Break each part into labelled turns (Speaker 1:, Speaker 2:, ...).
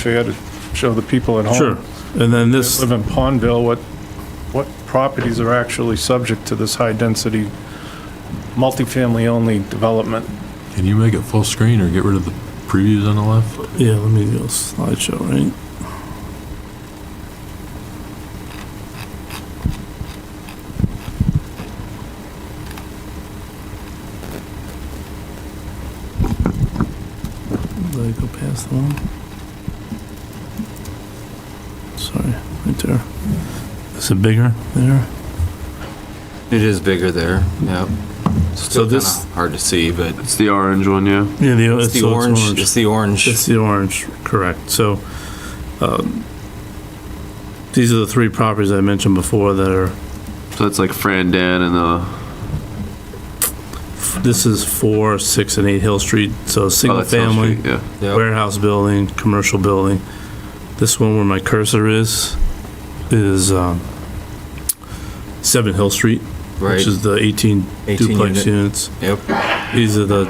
Speaker 1: fair to show the people at
Speaker 2: Oh.
Speaker 1: home.
Speaker 3: Sure. And then this,
Speaker 1: Live in Pondville, what, what properties are actually subject to this high-density, multifamily-only development?
Speaker 4: Can you make it full screen or get rid of the previews on the left?
Speaker 3: yeah, let me go slideshow, right? Did I go past the one? Sorry, right there. Is it bigger there?
Speaker 2: It is bigger there, yeah.
Speaker 3: So this-
Speaker 2: Hard to see, but
Speaker 5: It's the orange one, yeah.
Speaker 3: Yeah, the,
Speaker 2: it's the
Speaker 3: so
Speaker 2: orange, it's the
Speaker 3: It's
Speaker 2: orange.
Speaker 3: the orange, correct. So um, these are the three properties I mentioned before that are,
Speaker 5: So that's like Fran Dan and the
Speaker 3: this is four, six, and eight Hill Street, so
Speaker 5: oh,
Speaker 3: single
Speaker 5: that's Hill
Speaker 3: family,
Speaker 5: Street, Yeah.
Speaker 2: Yep.
Speaker 3: warehouse building, commercial building. This one where my cursor is, is um, seven Hill Street,
Speaker 2: Right,
Speaker 3: which is the 18
Speaker 2: 18
Speaker 3: duplex
Speaker 2: unit.
Speaker 3: units.
Speaker 2: yep,
Speaker 3: These are the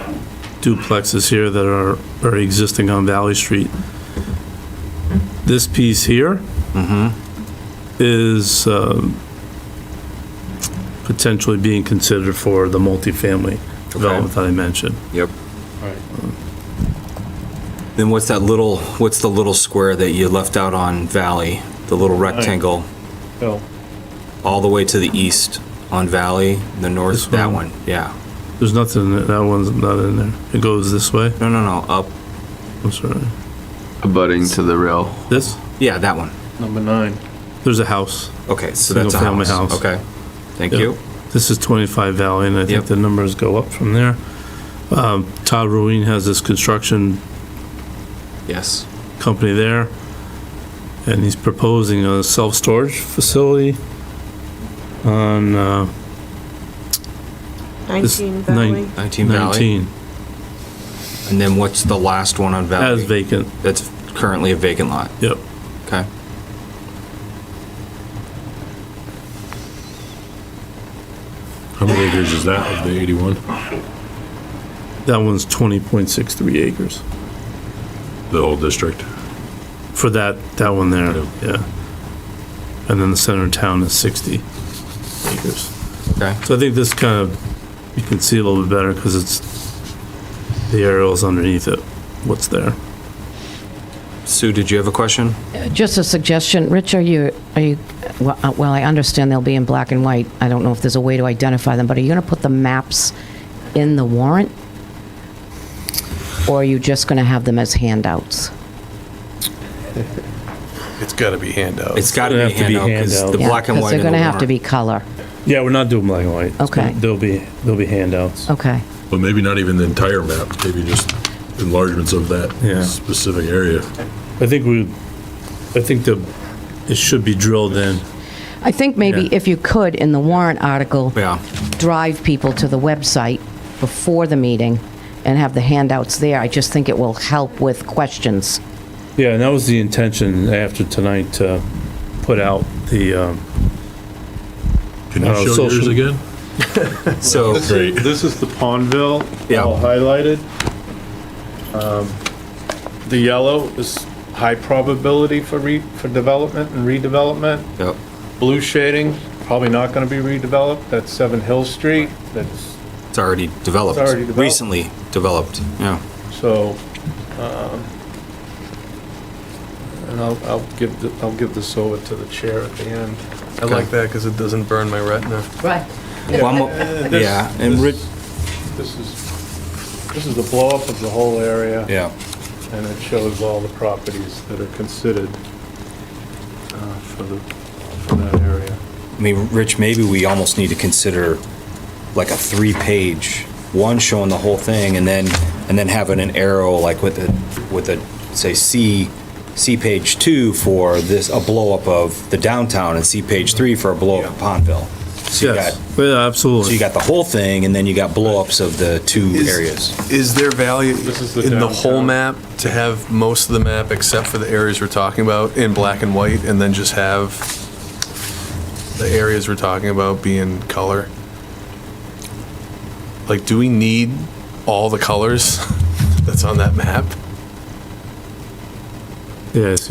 Speaker 3: duplexes here that are, are existing on Valley Street. This piece here is um, potentially being considered for the multifamily development that I mentioned.
Speaker 2: yep. Then what's that little, what's the little square that you left out on Valley? The little rectangle,
Speaker 1: Bill?
Speaker 2: all the way to the east on Valley, the
Speaker 3: This
Speaker 2: north, that
Speaker 3: one?
Speaker 2: one, yeah.
Speaker 3: There's nothing, that one's not in there. It goes this way,
Speaker 2: No, no, no, up,
Speaker 3: I'm sorry.
Speaker 5: Abutting to the rail.
Speaker 3: This,
Speaker 2: yeah, that one.
Speaker 1: Number nine.
Speaker 3: there's a house.
Speaker 2: Okay, so that's a
Speaker 3: Single-family
Speaker 2: house.
Speaker 3: house.
Speaker 2: Okay, thank
Speaker 3: Yep.
Speaker 2: you.
Speaker 3: This is 25 Valley, and I think
Speaker 2: Yep.
Speaker 3: the numbers go up from there. Um, Todd Ruin has this construction
Speaker 2: Yes,
Speaker 3: company there, and he's proposing a self-storage facility on uh,
Speaker 6: 19
Speaker 3: This-
Speaker 6: Valley.
Speaker 3: nine-
Speaker 2: 19 Valley.
Speaker 3: 19.
Speaker 2: And then what's the last one on
Speaker 3: That is
Speaker 2: Valley?
Speaker 3: vacant,
Speaker 2: That's currently a vacant lot,
Speaker 3: yep.
Speaker 2: okay?
Speaker 4: How many acres is that of the 81?
Speaker 3: That one's 20.63 acres
Speaker 4: The whole district?
Speaker 3: for that, that one there,
Speaker 4: Yeah.
Speaker 3: yeah. And then the center of town is 60 acres.
Speaker 2: Okay.
Speaker 3: So I think this kind of, you can see a little bit better because it's, the aerial's underneath it, what's there.
Speaker 2: Sue, did you have a question?
Speaker 7: Just a suggestion, Rich, are you, are you, well, uh, well, I understand they'll be in black and white. I don't know if there's a way to identify them, but are you going to put the maps in the warrant? Or are you just going to have them as handouts?
Speaker 8: It's got to be handout.
Speaker 2: It's got to
Speaker 3: gonna
Speaker 2: be
Speaker 3: have to be
Speaker 2: handout, because the
Speaker 3: handouts.
Speaker 7: Yeah,
Speaker 2: black and white.
Speaker 7: Because they're
Speaker 2: in the
Speaker 7: going to have to
Speaker 2: warrant.
Speaker 7: be color.
Speaker 3: Yeah, we're not doing black and white.
Speaker 7: Okay. gonna-
Speaker 3: There'll be, there'll be handouts.
Speaker 7: Okay.
Speaker 4: But maybe not even the entire map, maybe just enlargements of that
Speaker 3: Yeah.
Speaker 4: specific area.
Speaker 3: I think we, I think the, it should be drilled in.
Speaker 7: I think maybe
Speaker 3: Yeah.
Speaker 7: if you could, in the warrant article,
Speaker 2: Yeah,
Speaker 7: drive people to the website before the meeting and have the handouts there. I just think it will help with questions.
Speaker 3: Yeah, and that was the intention after tonight to put out the, um,
Speaker 4: Can
Speaker 3: Uh,
Speaker 4: you show
Speaker 3: social-
Speaker 4: yours again?
Speaker 2: so,
Speaker 4: Great.
Speaker 1: This is the Pondville,
Speaker 2: Yeah.
Speaker 1: all highlighted. Um, The yellow is high probability for re, for development and redevelopment.
Speaker 2: yep,
Speaker 1: Blue shading, probably not gonna be redeveloped, that's Seven Hill Street, that's,
Speaker 2: it's already developed.
Speaker 1: It's already developed.
Speaker 2: Recently developed, yeah.
Speaker 1: so, um, and I'll, I'll give, the- I'll give this over to the chair at the end.
Speaker 8: I like that because it doesn't burn my retina.
Speaker 7: Right.
Speaker 2: Well, I'm-
Speaker 1: This-
Speaker 2: Yeah, and Rich,
Speaker 1: this- This is, this is the blow-up of the whole area.
Speaker 2: yeah,
Speaker 1: and it shows all the properties that are considered uh, for the, for that area.
Speaker 2: I mean, Rich, maybe we almost need to consider like a three-page, one showing the whole thing, and then, and then having an arrow like with a, with a, say, C, C page two for this, a blow-up of the downtown, and C page three for a blow-up of Pondville. So you got,
Speaker 3: yes, yeah,
Speaker 2: so you
Speaker 3: absolutely.
Speaker 2: got the whole thing, and then you got blow-ups of the two
Speaker 8: Is-
Speaker 2: areas.
Speaker 8: Is there value
Speaker 1: This is the
Speaker 8: in the whole
Speaker 1: downtown.
Speaker 8: map to have most of the map except for the areas we're talking about in black and white and then just have the areas we're talking about be in color? Like, do we need all the colors that's on that map?
Speaker 3: Yeah, I see